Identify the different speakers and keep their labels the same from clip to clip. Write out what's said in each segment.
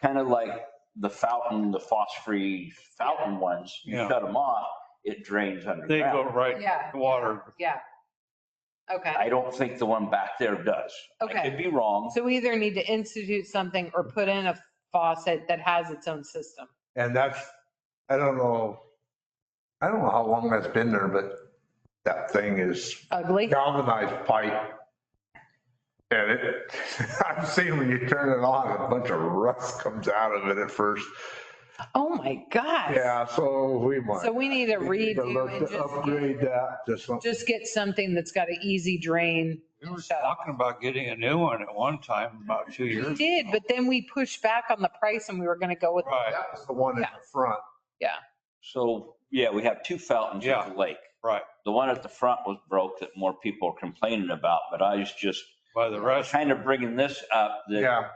Speaker 1: kind of like the fountain, the phosphorus fountain ones, you
Speaker 2: Yeah.
Speaker 1: shut them off, it drains
Speaker 2: They go
Speaker 1: underground.
Speaker 2: right,
Speaker 3: Yeah,
Speaker 2: the water,
Speaker 3: yeah. Okay,
Speaker 1: I don't think the one back there does. I
Speaker 3: Okay.
Speaker 1: could be wrong.
Speaker 3: so we either need to institute something or put in a faucet that has its own system.
Speaker 4: And that's, I don't know, I don't know how long that's been there, but that thing is
Speaker 3: Ugly?
Speaker 4: galvanized pipe. And it, I've seen when you turn it on, a bunch of rust comes out of it at first.
Speaker 3: Oh my gosh.
Speaker 4: Yeah, so we might.
Speaker 3: So we need to
Speaker 4: need to
Speaker 3: redo
Speaker 4: look
Speaker 3: and just,
Speaker 4: to
Speaker 3: get-
Speaker 4: Upgrade that to something.
Speaker 3: just get something that's got an easy drain.
Speaker 2: we were
Speaker 3: Shut up.
Speaker 2: talking about getting a new one at one time, about two years.
Speaker 3: We did, but then we pushed back on the price and we were going to go with,
Speaker 2: Right,
Speaker 4: That was the one in
Speaker 3: Yeah.
Speaker 4: the front.
Speaker 1: So, yeah, we have two fountains
Speaker 2: Yeah.
Speaker 1: at the lake.
Speaker 2: right,
Speaker 1: The one at the front was broke that more people are complaining about, but I was just
Speaker 2: by the rest.
Speaker 1: kind of bringing this up that
Speaker 4: Yeah,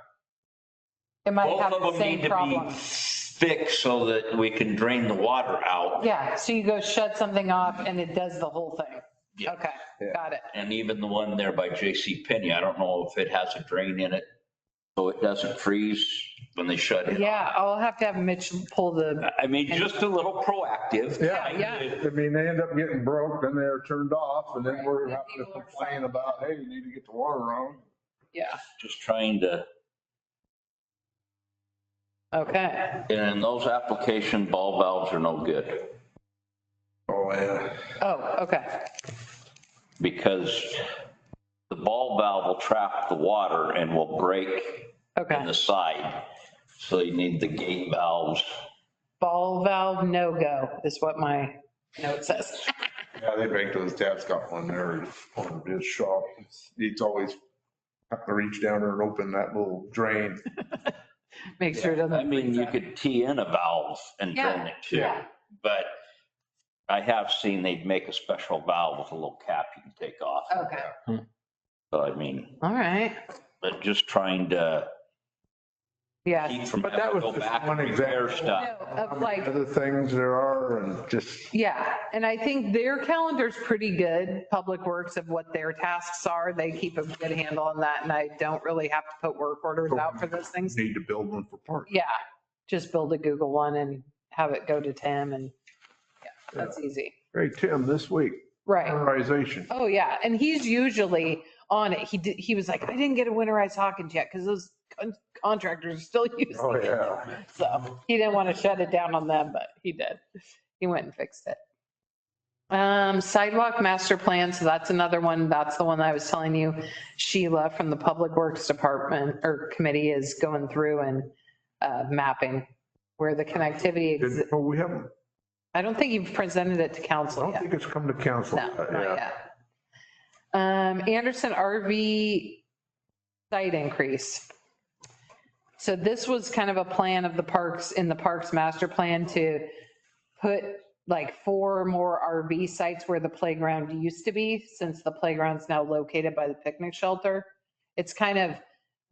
Speaker 3: it might
Speaker 1: both
Speaker 3: have
Speaker 1: of
Speaker 3: the
Speaker 1: them need
Speaker 3: same
Speaker 1: to be
Speaker 3: problem.
Speaker 1: fixed so that we can drain the water out.
Speaker 3: Yeah, so you go shut something off and it does the whole thing.
Speaker 1: Yeah.
Speaker 3: Okay,
Speaker 4: Yeah.
Speaker 3: got it.
Speaker 1: And even the one there by J.C. Penney, I don't know if it has a drain in it, so it doesn't freeze when they shut it.
Speaker 3: Yeah, I'll have to have Mitch pull the,
Speaker 1: I mean, just a little proactive.
Speaker 4: yeah.
Speaker 3: yeah,
Speaker 4: I mean, they end up getting broke, then they're turned off, and then we're
Speaker 3: Right.
Speaker 4: having to complain about, hey, you need to get the water on.
Speaker 3: yeah,
Speaker 1: Just trying to,
Speaker 3: okay.
Speaker 1: and those application ball valves are no good
Speaker 4: Oh, yeah.
Speaker 3: Oh, okay,
Speaker 1: because the ball valve will trap the water and will break in
Speaker 3: okay.
Speaker 1: the side. So you need the gate valves.
Speaker 3: Ball valve no-go is what my note says.
Speaker 4: Yeah, they make those, Dad's got one there on his shop. He's always have to reach down there and open that little drain.
Speaker 3: Make sure it doesn't.
Speaker 1: I mean,
Speaker 3: freeze
Speaker 1: you
Speaker 3: up.
Speaker 1: could tee in a valve and drain it too.
Speaker 3: Yeah.
Speaker 1: But I have seen they'd make a special valve with a little cap you can take off.
Speaker 3: Okay,
Speaker 1: So I mean,
Speaker 3: all right,
Speaker 1: but just trying to
Speaker 3: yeah. Um,
Speaker 1: keep from
Speaker 4: But that
Speaker 1: having to
Speaker 4: was
Speaker 1: go
Speaker 4: just
Speaker 1: back and
Speaker 4: one
Speaker 1: repair
Speaker 4: example.
Speaker 3: No,
Speaker 1: stuff.
Speaker 3: Of like,
Speaker 4: Other things there are and just.
Speaker 3: Yeah, and I think their calendar's pretty good, Public Works, of what their tasks are. They keep a good handle on that, and I don't really have to put work orders out for those things.
Speaker 4: Need to build one for parks.
Speaker 3: Yeah, just build a Google one and have it go to Tim, and yeah, that's easy.
Speaker 4: Hey, Tim, this week,
Speaker 3: Right.
Speaker 4: prioritization.
Speaker 3: Oh, yeah, and he's usually on it. He did, he was like, I didn't get a winterized Hawkins yet, because those con- contractors are still using
Speaker 4: Oh,
Speaker 3: it.
Speaker 4: yeah.
Speaker 3: So he didn't want to shut it down on them, but he did. He went and fixed it. Um, sidewalk master plan, so that's another one. That's the one I was telling you. Sheila from the Public Works Department or Committee is going through and uh, mapping where the connectivity, exi-
Speaker 4: Did- Well, we haven't,
Speaker 3: I don't think you've presented it to
Speaker 4: I
Speaker 3: council
Speaker 4: don't
Speaker 3: yet.
Speaker 4: think it's come to council.
Speaker 3: No,
Speaker 4: yet,
Speaker 3: not
Speaker 4: Uh, yeah.
Speaker 3: yet. Um, Anderson RV site increase. So this was kind of a plan of the parks, in the parks master plan to put like four more RV sites where the playground used to be, since the playground's now located by the picnic shelter. It's kind of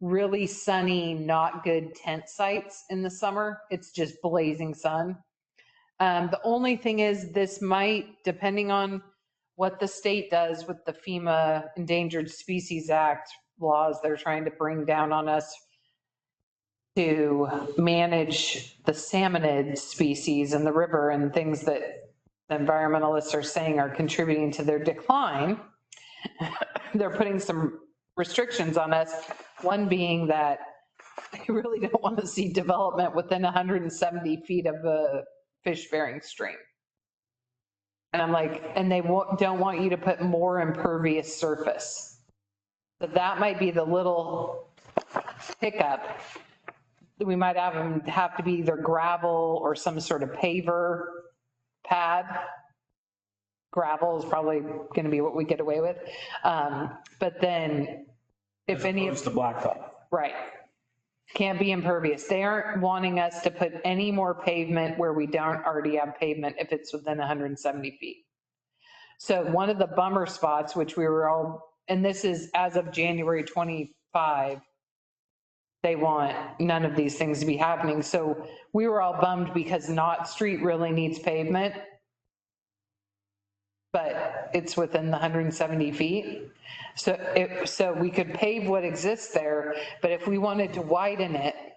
Speaker 3: really sunny, not good tent sites in the summer. It's just blazing sun. Um, the only thing is this might, depending on what the state does with the FEMA Endangered Species Act laws they're trying to bring down on us to manage the salmonid species in the river and things that the environmentalists are saying are contributing to their decline. They're putting some restrictions on us, one being that they really don't want to see development within 170 feet of a fish-bearing stream. And I'm like, and they wa- don't want you to put more impervious surface. So that might be the little hiccup. We might have them have to be either gravel or some sort of paver pad. Gravel is probably going to be what we get away with. Um, But then if any of.
Speaker 5: It's the blacktop.
Speaker 3: Right. Can't be impervious. They aren't wanting us to put any more pavement where we don't already have pavement if it's within 170 feet. So one of the bummer spots, which we were all, and this is as of January 25, they want none of these things to be happening. So we were all bummed because Knott Street really needs pavement. But it's within the 170 feet. So it, so we could pave what exists there, but if we wanted to widen it